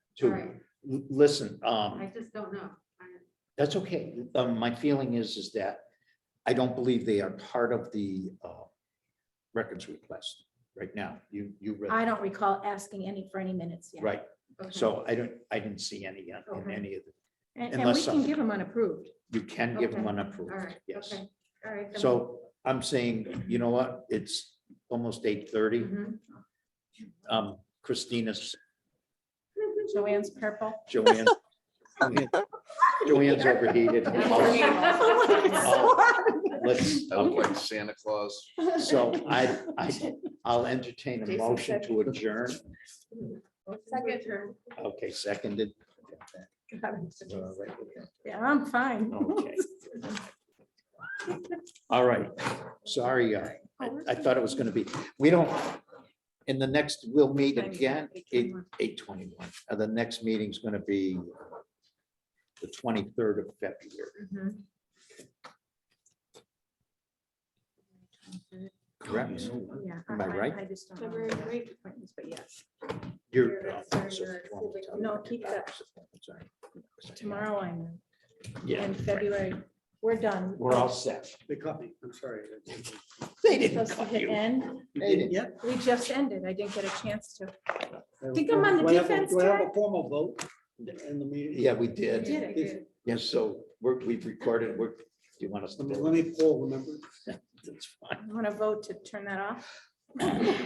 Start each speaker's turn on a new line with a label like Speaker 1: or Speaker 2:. Speaker 1: too.
Speaker 2: Right.
Speaker 1: L- Listen,
Speaker 2: I
Speaker 1: um,
Speaker 2: just don't know. I-
Speaker 1: that's okay. Um, my feeling is, is that I don't believe they are part of the, uh, records request right now. You, you
Speaker 3: I
Speaker 1: read,
Speaker 3: don't recall asking any for any minutes yet.
Speaker 1: right?
Speaker 2: okay.
Speaker 1: So I don't, I didn't see any uh, in- in
Speaker 2: Okay.
Speaker 1: any of the,
Speaker 3: And, and we
Speaker 1: Unless
Speaker 3: can
Speaker 1: something-
Speaker 3: give them unapproved.
Speaker 1: you can give them
Speaker 2: Okay.
Speaker 1: unapproved.
Speaker 2: All right,
Speaker 1: yes.
Speaker 2: okay, all right. then
Speaker 1: So I'm saying, you know what? It's almost eight
Speaker 2: we-
Speaker 1: thirty.
Speaker 2: Mhm.
Speaker 1: Um, Christina's,
Speaker 3: Joanne's purple.
Speaker 1: Joanne's. Joanne's overheated.
Speaker 2: Yeah.
Speaker 1: Oh, Let's,
Speaker 4: I look like Santa Claus.
Speaker 1: so I, I, I'll entertain a
Speaker 2: Jason
Speaker 1: motion to adjourn.
Speaker 2: Second term.
Speaker 1: Okay, seconded.
Speaker 3: Yeah, I'm fine.
Speaker 1: Uh, Okay. All right, sorry, uh, I, I thought it was gonna be, we don't, in the next, we'll meet again, eight, eight twenty-one. Uh, The next meeting's gonna be the twenty-third of February,
Speaker 3: Mm-hmm.
Speaker 2: Mhm.
Speaker 1: correct?
Speaker 3: Yeah.
Speaker 1: Am I right?
Speaker 3: I just don't
Speaker 2: February
Speaker 3: know.
Speaker 2: break.
Speaker 3: But yes,
Speaker 1: You're.
Speaker 3: No, keep that.
Speaker 1: Sorry.
Speaker 3: tomorrow I'm in,
Speaker 1: Yeah.
Speaker 3: in February. We're done.
Speaker 1: We're all set.
Speaker 5: They caught me, I'm sorry.
Speaker 1: They didn't
Speaker 3: Supposed to
Speaker 1: cut
Speaker 3: hit
Speaker 1: you.
Speaker 3: end.
Speaker 1: They didn't.
Speaker 5: Yep.
Speaker 3: We just ended. I didn't get a chance to. Think I'm on the
Speaker 5: Do I have a-
Speaker 3: defense,
Speaker 5: Do I have
Speaker 3: Ted?
Speaker 5: a formal vote in the meeting?
Speaker 1: Yeah, we
Speaker 2: We
Speaker 1: did.
Speaker 2: did, I did.
Speaker 1: Yes, so we're, we've recorded, we're, do you want us to?
Speaker 5: Let me- let me poll, remember?
Speaker 1: That's fine.
Speaker 3: I want to vote to turn that off.